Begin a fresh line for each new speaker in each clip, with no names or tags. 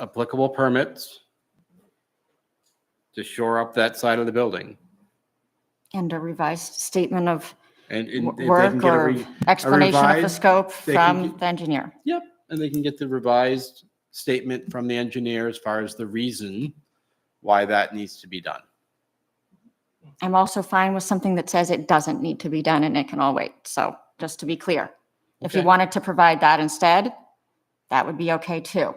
applicable permits to shore up that side of the building.
And a revised statement of
And and if
w-
they can
work
get a
or
re-
explanation of the
revised,
scope
they can
from
get-
the engineer.
Yep, and they can get the revised statement from the engineer as far as the reason why that needs to be done.
I'm also fine with something that says it doesn't need to be done and it can all wait. So just to be clear. If you
Okay.
wanted to provide that instead, that would be okay too.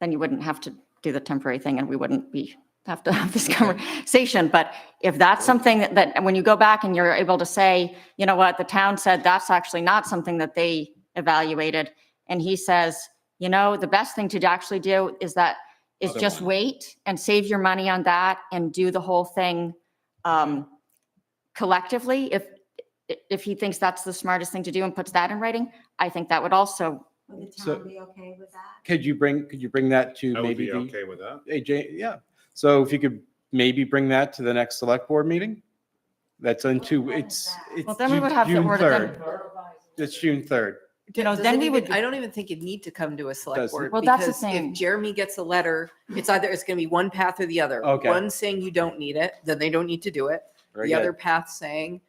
Then you wouldn't have to do the temporary thing and we wouldn't be, have to have this conversation. But if that's something that, that when you go back and you're able to say, you know what, the town said that's actually not something that they evaluated. And he says, you know, the best thing to actually do is that, is
Other
just
one.
wait and save your money on that and do the whole thing um, collectively. If, if he thinks that's the smartest thing to do and puts that in writing, I think that would also,
Would the
So-
town be okay with that?
Could you bring, could you bring that to
I would
maybe
be
the,
okay with that.
AJ, yeah. So if you could maybe bring that to the next select board meeting? That's on
What
two,
time is
it's,
that?
it's
Well, then we
Ju-
would have to
June
order them.
3rd. It's June 3rd.
You know,
Doesn't
then we
even-
would, be-
I don't even think you'd need to come to a select
Doesn't.
board.
Well, that's the
because
thing.
If Jeremy gets a letter, it's either, it's going to be one path or the other.
Okay.
One saying you don't need it, then they don't need to do it.
Very
The other
good.
path saying,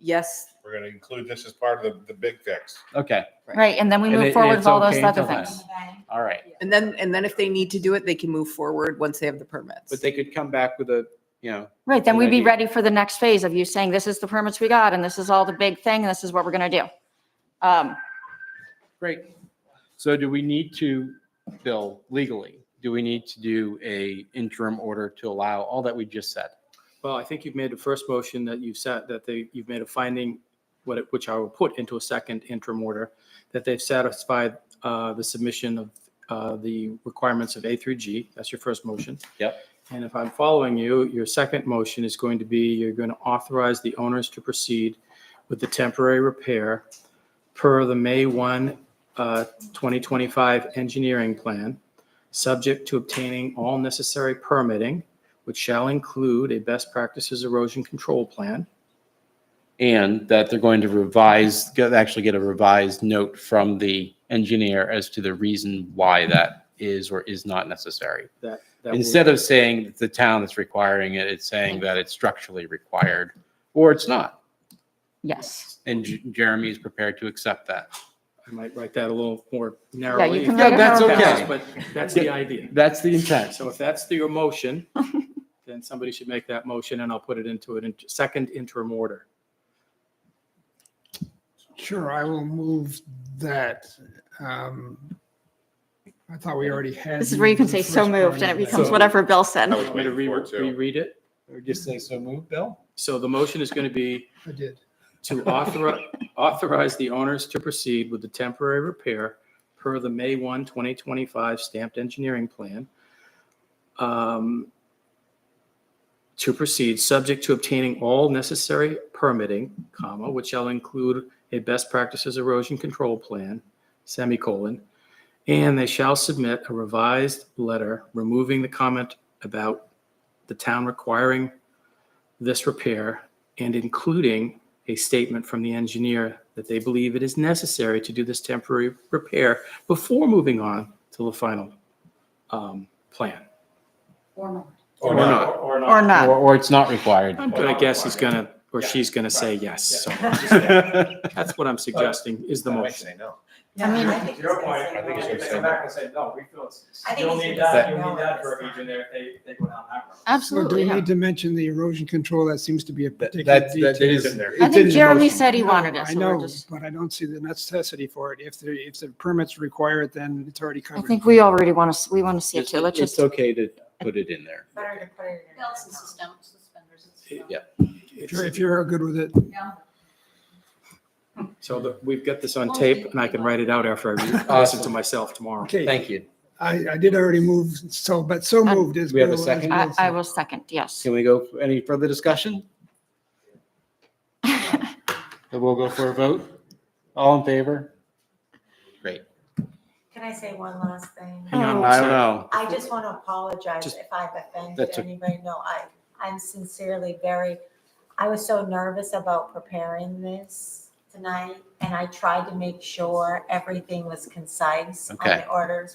yes,
We're gonna include this as part of the, the big fix.
Okay,
Right.
right, and then we
And it-
move
and
forward with
it's
all those
okay
other
until then.
things.
Okay.
all right.
and then, and then if they need to do it, they can move forward once they have the permits.
But they could come back with a, you know,
Right, then
Good
we'd be
idea.
ready for the next phase of you saying, this is the permits we got, and this is all the big thing, and this is what we're going to do. Um,
Great. So do we need to, Bill, legally, do we need to do a interim order to allow all that we just said?
Well, I think you've made the first motion that you've said, that they, you've made a finding, what it- which I will put into a second interim order, that they've satisfied uh, the submission of uh, the requirements of A through G. That's your first motion.
Yep.
And if I'm following you, your second motion is going to be, you're going to authorize the owners to proceed with the temporary repair per the May 1, uh, 2025 engineering plan, subject to obtaining all necessary permitting, which shall include a best practices erosion control plan.
And that they're going to revise, get- actually get a revised note from the engineer as to the reason why that is or is not necessary.
That, that will-
Instead of saying it's the town that's requiring it, it's saying that it's structurally required or it's not.
Yes,
And J- Jeremy is prepared to accept that.
I might write that a little more narrowly.
you can
if
write it
that
however
passes,
you
But that's the idea.
That's the intent.
So if that's the- your motion, then somebody should make that motion and I'll put it into a second interim order.
Sure, I will move that. um, I thought we already had.
this is where you can
the
say
first
so
part
moved, and
of
it
that.
becomes
So-
whatever Bill said.
I was
Want me to
waiting
re-
for it too.
reread it?
Just say so moved, Bill?
So the motion is going to be
I did.
to authorize, authorize the owners to proceed with the temporary repair per the May 1, 2025 stamped engineering plan. um, To proceed, subject to obtaining all necessary permitting, comma, which shall include a best practices erosion control plan, semicolon, and they shall submit a revised letter removing the comment about the town requiring this repair and including a statement from the engineer that they believe it is necessary to do this temporary repair before moving on to the final um, plan.
Or not.
Or
Or
Or,
not,
or it's not required.
I'm gonna guess he's gonna, or she's gonna say yes. So that's what I'm suggesting is the motion.
I mean, I think it's gonna say
I think it's
no.
gonna say no.
and say, no, we feel it's,
I think
you'll
it's
need
gonna
that,
say
you'll
no
need
at
that
this
verbiage
time.
in there if they, they go down that road.
So do
absolutely.
we
yeah.
need to mention the erosion control? That seems to be a particular
That, that
detail.
is.
in there.
I
it's in
think
the
Jeremy
motion.
said he
No,
wanted it,
I
so we're
know,
just,
but I don't see the necessity for it. If the, if the permits require it, then it's already
I
covered.
think we already want to, we want to see it
It's
too. Let's
it's
just,
okay to put it in there.
Better to put it in.
Belts and sustem- suspenders. and stuff.
Yeah.
If you're- If you're good with it.
So the- we've got this on tape and I can write it out after I re- listen to
Awesome.
myself tomorrow.
Okay,
Thank you.
I, I did already move, so, but so
Um,
moved is.
We have a
Bill- is
second?
Bill
I, I
said.
will second, yes.
Can we go for any further discussion? Then we'll go for a vote. All in favor? Great.
Can I say one last thing?
Hang on one
Oh, I don't
second.
know.
I just want to apologize
Just-
if I've offended
That's o-
anybody. No, I, I'm sincerely very, I was so nervous about preparing this tonight, and I tried to make sure everything was concise on
Okay.
the orders